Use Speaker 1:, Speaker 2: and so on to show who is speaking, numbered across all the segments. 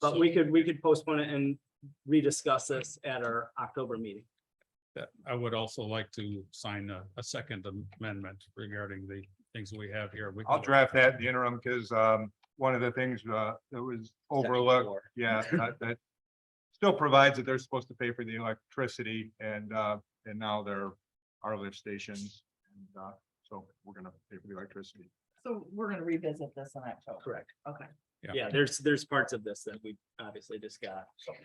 Speaker 1: But we could, we could postpone it and rediscuss this at our October meeting.
Speaker 2: That uh, I would also like to sign a, a second amendment regarding the things we have here. We
Speaker 3: I'll
Speaker 2: can-
Speaker 3: draft that in the interim because um, one of the things uh, that was overlooked,
Speaker 1: floor.
Speaker 3: yeah, that- that still provides that they're supposed to pay for the electricity and uh, and now they're our lift stations. and uh, So we're gonna pay for the electricity.
Speaker 4: So we're gonna revisit this in October,
Speaker 1: Correct.
Speaker 4: okay.
Speaker 1: Yeah, there's, there's parts of this that we obviously just got.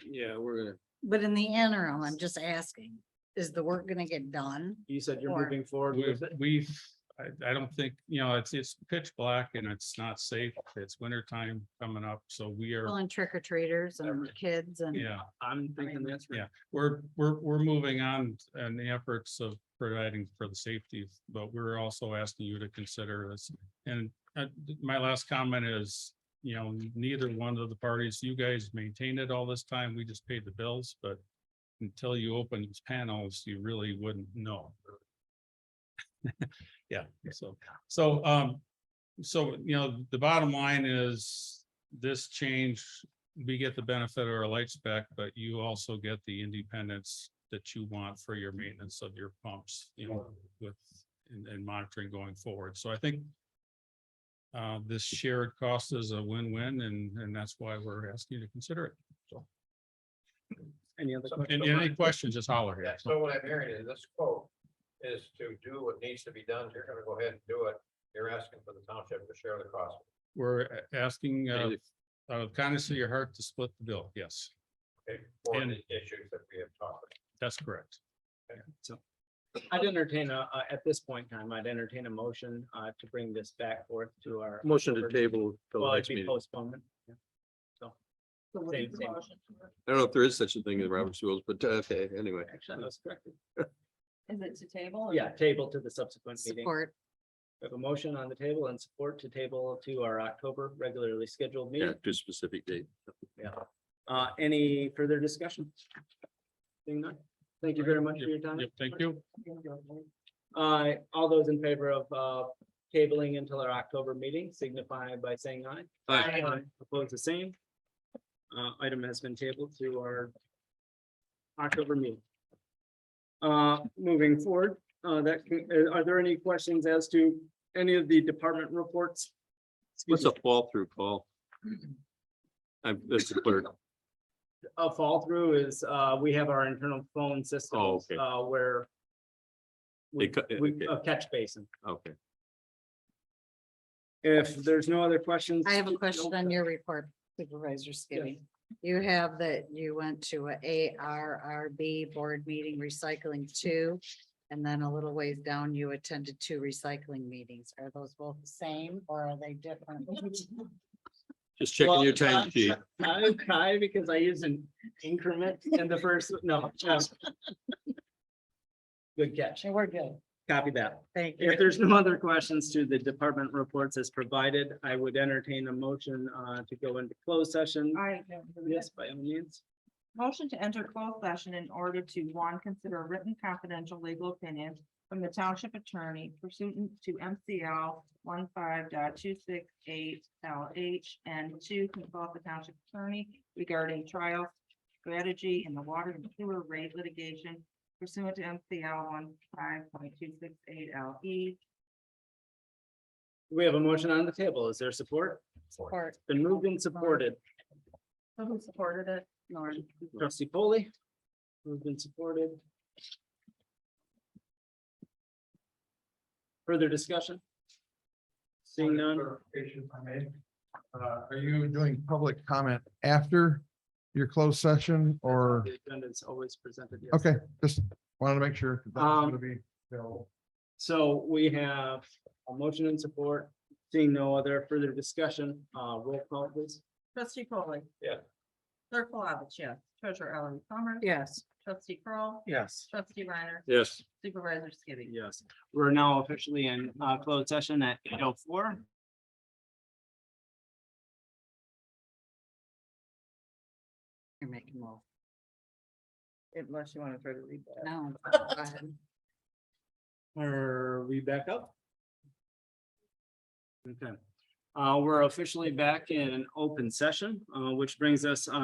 Speaker 5: Yeah, we're gonna,
Speaker 6: But in the interim, I'm just asking, is the work gonna get done?
Speaker 1: You said you're
Speaker 6: Or-
Speaker 1: moving forward
Speaker 2: We,
Speaker 1: with it.
Speaker 2: we, I, I don't think, you know, it's, it's pitch black and it's not safe. It's winter time coming up, so we
Speaker 6: Well,
Speaker 2: are,
Speaker 6: and trick or treaters and
Speaker 1: Every-
Speaker 6: kids and.
Speaker 2: yeah.
Speaker 1: I'm thinking that's right.
Speaker 2: Yeah. We're, we're, we're moving on in the efforts of providing for the safety, but we're also asking you to consider this. And uh, my last comment is, you know, neither one of the parties, you guys maintained it all this time. We just paid the bills, but until you open these panels, you really wouldn't know. Yeah, so, so, um, so, you know, the bottom line is this change we get the benefit of our lights back, but you also get the independence that you want for your maintenance of your pumps, you know, with and, and monitoring going forward. So I think uh, this shared cost is a win-win and, and that's why we're asking you to consider it.
Speaker 1: Any other
Speaker 2: And
Speaker 1: questions?
Speaker 2: and any questions, just holler here.
Speaker 7: Yeah, so what I'm hearing is this quote is to do what needs to be done. You're gonna go ahead and do it. You're asking for the township to share the cost.
Speaker 2: We're a- asking, uh,
Speaker 5: and if-
Speaker 2: uh, kindness of your heart to split the bill. Yes,
Speaker 7: okay, For
Speaker 2: And-
Speaker 7: the issues that we have talked about.
Speaker 2: that's correct.
Speaker 1: I'd entertain a, uh, at this point in time, I'd entertain a motion uh, to bring this back forth to our,
Speaker 5: motion to table till the
Speaker 1: well, it'd
Speaker 5: next
Speaker 1: be
Speaker 5: meeting.
Speaker 1: postponed.
Speaker 4: So what
Speaker 1: Same,
Speaker 4: is the
Speaker 1: same.
Speaker 4: motion for?
Speaker 5: I don't know if there is such a thing in Robert's rules, but uh, okay, anyway.
Speaker 1: Actually, I was corrected.
Speaker 4: Is it to table? or-
Speaker 1: Yeah, table to the subsequent meeting.
Speaker 6: Support,
Speaker 1: We have a motion on the table and support to table to our October regularly scheduled
Speaker 5: Yeah,
Speaker 1: meeting.
Speaker 5: to a specific date.
Speaker 1: Uh, any further discussion? Seeing none. Thank you very much for your time.
Speaker 2: Yep, Thank you.
Speaker 1: Uh, all those in favor of, uh, tabling until our October meeting signify by saying aye.
Speaker 5: Aye.
Speaker 1: Aye. Opposed, the same. Uh, item has been tabled to our October meeting. Uh, moving forward, uh, that, can- uh, are there any questions as to any of the department reports?
Speaker 5: What's
Speaker 1: Excuse
Speaker 5: a
Speaker 1: me,
Speaker 5: fall through call? I'm, that's the clerk.
Speaker 1: A fall through is, uh, we have our internal phone systems,
Speaker 5: Oh, okay.
Speaker 1: uh, where
Speaker 5: They
Speaker 1: we,
Speaker 5: cut-
Speaker 1: we,
Speaker 5: okay.
Speaker 1: a catch basin.
Speaker 5: Okay.
Speaker 1: If there's no other questions.
Speaker 6: I have a question on your report Supervisor Skibby. You have that you went to a ARRB board meeting recycling two. And then a little ways down, you attended two recycling meetings. Are those both the same or are they different?
Speaker 5: Just checking your
Speaker 1: Well,
Speaker 5: time sheet.
Speaker 1: I cry because I used an increment in the first, no. no. Good catch.
Speaker 6: Actually, we're good.
Speaker 1: Copy that.
Speaker 6: Thank you.
Speaker 1: If there's no other questions to the department reports as provided, I would entertain a motion uh, to go into closed session.
Speaker 4: All right. yeah, we're good.
Speaker 1: Yes, by all means.
Speaker 4: Motion to enter closed session in order to, one, consider a written confidential legal opinion from the township attorney pursuant to MCL one LH, and two, consult the township attorney regarding trial strategy in the water and sewer rate litigation pursuant to MCL one LE.
Speaker 1: We have a motion on the table. Is there support?
Speaker 6: Support,
Speaker 1: Been moved and supported.
Speaker 4: Who supported it?
Speaker 6: Lauren.
Speaker 1: Trustee Foley. Moved and supported. Further discussion? Seeing none.
Speaker 8: clarification, if I may. Uh, Are you doing public comment after your closed session or,
Speaker 1: The agenda is always presented. yes.
Speaker 8: okay, just wanted to make sure. that was
Speaker 1: Um,
Speaker 8: gonna be available.
Speaker 1: So we have a motion and support, seeing no other further discussion, uh, roll call please.
Speaker 4: Trustee Polly.
Speaker 7: Yeah.
Speaker 4: Clerk Palovich, yes. Treasurer Ellery Summers.
Speaker 6: Yes.
Speaker 4: Trustee Kroll,
Speaker 1: Yes.
Speaker 4: Trustee Reiner.
Speaker 5: Yes.
Speaker 4: Supervisor Skibby.
Speaker 1: Yes, we're now officially in, uh, closed session at eight oh four.
Speaker 6: You're making more.
Speaker 4: Unless you want to try to read that.
Speaker 6: No. go ahead.
Speaker 1: Are we back up? Okay, Uh, we're officially back in an open session, uh, which brings us